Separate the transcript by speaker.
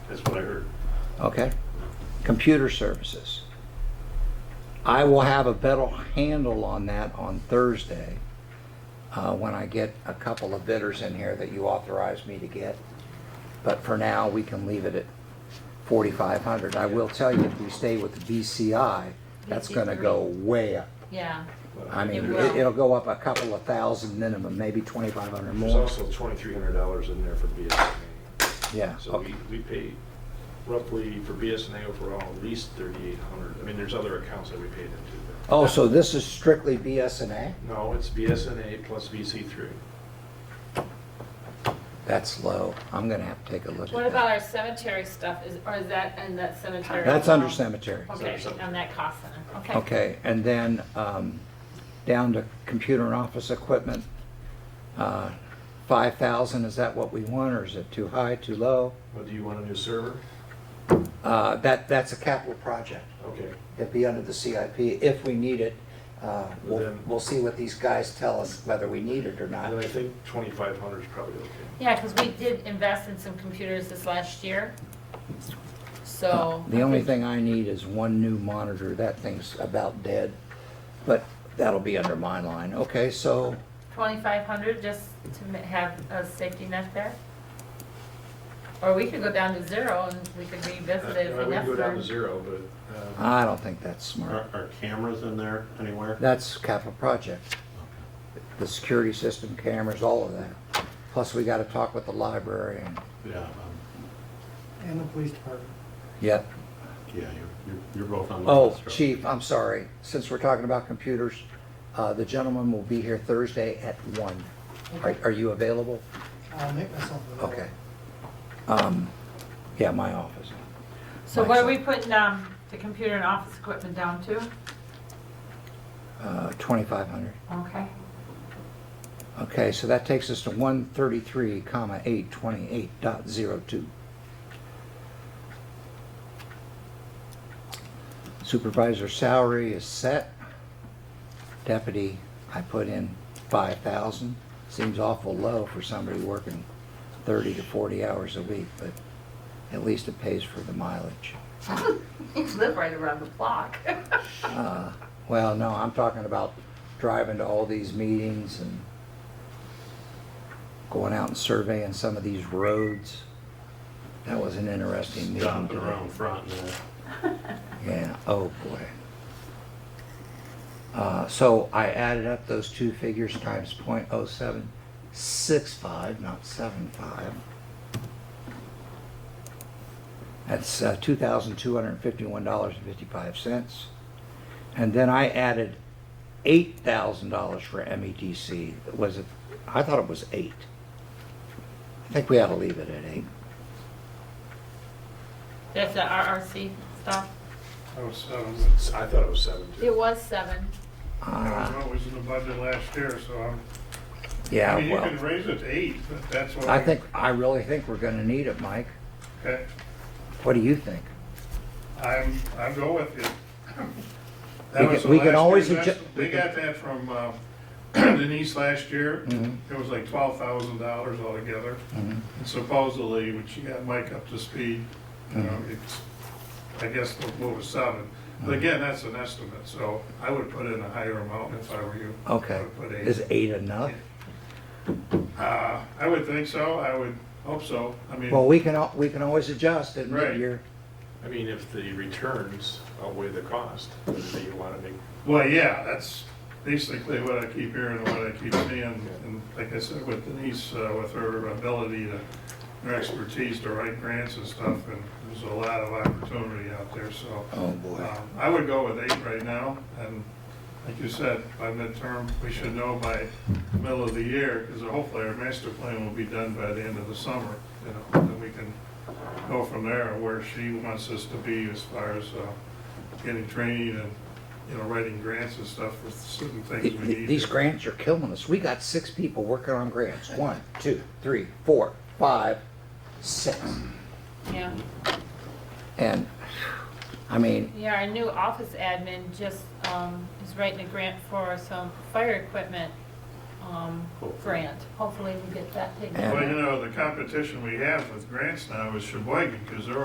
Speaker 1: That's what I heard.
Speaker 2: okay? Computer services. I will have a better handle on that on Thursday uh, when I get a couple of bidders in here that you authorized me to get. But for now, we can leave it at 4,500. I will tell you, if we stay with the BCI, that's going to go way up.
Speaker 3: Yeah,
Speaker 2: I mean,
Speaker 3: It
Speaker 2: it-
Speaker 3: will.
Speaker 2: it'll go up a couple of thousand minimum, maybe 2,500
Speaker 1: There's
Speaker 2: more.
Speaker 1: also twenty-three hundred dollars in there for BSNA.
Speaker 2: Yeah,
Speaker 1: So
Speaker 2: okay.
Speaker 1: we, we pay roughly for BSNA overall, at least thirty-eight hundred. I mean, there's other accounts that we paid into. but-
Speaker 2: Oh, so this is strictly BSNA?
Speaker 1: No, it's BSNA plus VC three.
Speaker 2: That's low. I'm gonna have to take a look at that.
Speaker 3: what about our cemetery stuff, is, or is that, and that cemetery?
Speaker 2: That's under cemetery.
Speaker 3: Okay, on that cost center, okay.
Speaker 2: Okay, and then, um, down to computer and office equipment, uh, five thousand, is that what we want, or is it too high, too low?
Speaker 1: Well, do you want a new server?
Speaker 2: Uh, that, that's a capital project.
Speaker 1: Okay.
Speaker 2: It'd be under the CIP if we need it. Uh, we'll,
Speaker 1: Then-
Speaker 2: we'll see what these guys tell us whether we need it or not.
Speaker 1: And I think twenty-five hundred is probably okay.
Speaker 3: Yeah, because we did invest in some computers this last year, so.
Speaker 2: The only thing I need is one new monitor. That thing's about dead, but that'll be under my line. Okay, so,
Speaker 3: Twenty-five hundred, just to ma- have a safety net there? Or we could go down to zero and we could revisit it
Speaker 1: Uh, I
Speaker 3: if
Speaker 1: wouldn't go down to
Speaker 3: necessary.
Speaker 1: zero, but, uh,
Speaker 2: I don't think that's smart.
Speaker 4: Are, are cameras in there anywhere?
Speaker 2: That's capital project. The security system, cameras, all of that. Plus, we gotta talk with the library and,
Speaker 4: Yeah, um,
Speaker 5: And the police department.
Speaker 2: yep.
Speaker 4: yeah, you're, you're- you're both on the.
Speaker 2: Oh,
Speaker 4: list, right?
Speaker 2: chief, I'm sorry. Since we're talking about computers, uh, the gentleman will be here Thursday at one. Are, are you available?
Speaker 5: I'll make myself available.
Speaker 2: Okay. Um, yeah, my office.
Speaker 3: So what are we putting, um, the computer and office equipment down to?
Speaker 2: Uh, twenty-five hundred.
Speaker 3: Okay.
Speaker 2: Okay, so that takes us to one thirty-three comma eight twenty-eight dot zero two. Supervisor salary is set. Deputy, I put in five thousand. Seems awful low for somebody working thirty to forty hours a week, but at least it pays for the mileage.
Speaker 3: You live right around the block.
Speaker 2: Uh, Well, no, I'm talking about driving to all these meetings and going out and surveying some of these roads. That was an interesting meeting
Speaker 4: Stopping
Speaker 2: today.
Speaker 4: around front and that.
Speaker 2: Yeah, oh boy. Uh, so I added up those two figures times point oh seven six five, not seven five. That's uh, two thousand two hundred and fifty-one dollars and fifty-five cents. And then I added eight thousand dollars for MEDC. Was it, I thought it was eight. I think we ought to leave it at eight.
Speaker 3: That's the RRC stuff.
Speaker 6: Oh, seven.
Speaker 1: it's- I thought it was seven too.
Speaker 3: It was seven.
Speaker 6: I don't
Speaker 2: Uh,
Speaker 6: know, it was in the budget last year, so I'm,
Speaker 2: yeah,
Speaker 6: I mean, you can
Speaker 2: well,
Speaker 6: raise it to eight, but that's what.
Speaker 2: I think, I really think we're gonna need it, Mike.
Speaker 6: Okay,
Speaker 2: What do you think?
Speaker 6: I'm, I'm going with you.
Speaker 2: We
Speaker 6: That was
Speaker 2: can-
Speaker 6: the
Speaker 2: we can
Speaker 6: last
Speaker 2: always
Speaker 6: year's
Speaker 2: adju-
Speaker 6: estimate.
Speaker 2: we
Speaker 6: We
Speaker 2: can-
Speaker 6: got that from uh, Denise last year.
Speaker 2: Mhm.
Speaker 6: It was like twelve thousand dollars altogether. And Supposedly, when she got Mike up to speed, you know,
Speaker 2: Mm-hmm.
Speaker 6: it's, I guess the move was seven. But again, that's an estimate, so I would put in a higher amount if I were you. I
Speaker 2: Okay,
Speaker 6: would put eight.
Speaker 2: is eight enough?
Speaker 6: Uh, I would think so, I would hope so, I mean,
Speaker 2: Well, we can, al- we can always adjust it
Speaker 6: Right.
Speaker 2: mid-year.
Speaker 1: I mean, if the returns outweigh the cost, then you want to make,
Speaker 6: well, yeah, that's basically what I keep hearing and what I keep seeing, and like I said, with Denise, uh, with her ability to, her expertise to write grants and stuff, and there's a lot of opportunity out there, so.
Speaker 2: Oh, boy.
Speaker 6: um, I would go with eight right now, and like you said, by midterm, we should know by middle of the year, because hopefully our master plan will be done by the end of the summer, you know, and we can go from there, where she wants us to be as far as uh, getting training and, you know, writing grants and stuff for certain things we
Speaker 2: Th-
Speaker 6: need.
Speaker 2: These grants are killing us. We got six people working on grants. One, two, three, four, five, six.
Speaker 3: Yeah.
Speaker 2: And, I mean,
Speaker 3: Yeah, our new office admin just um, is writing a grant for some fire equipment um, grant. Hopefully we get that taken
Speaker 2: And-
Speaker 6: Well,
Speaker 3: care
Speaker 6: you
Speaker 3: of.
Speaker 6: know, the competition we have with grants now is Sheboygan, because they're